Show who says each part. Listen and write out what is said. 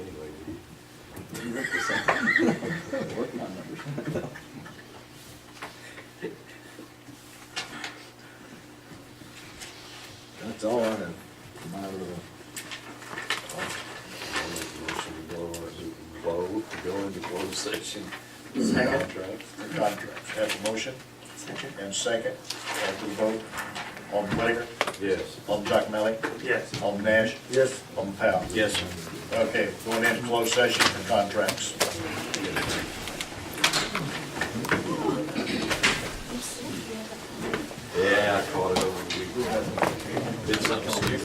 Speaker 1: you look for something. Working on numbers. That's all I have. for My little,
Speaker 2: I'll make a motion to go into close, go into closed session.
Speaker 3: Second.
Speaker 2: Contract.
Speaker 3: the contract. Have a motion
Speaker 4: Second.
Speaker 3: and second, call for the vote. Alderman Whitaker,
Speaker 2: Yes.
Speaker 3: Alderman Jock Melly,
Speaker 4: Yes.
Speaker 3: Alderman Nash. Yes. Alderman Powell.
Speaker 2: Yes, sir.
Speaker 3: Okay, going into closed session for contracts.
Speaker 2: Yeah, I caught it over the weekend. Did something stupid.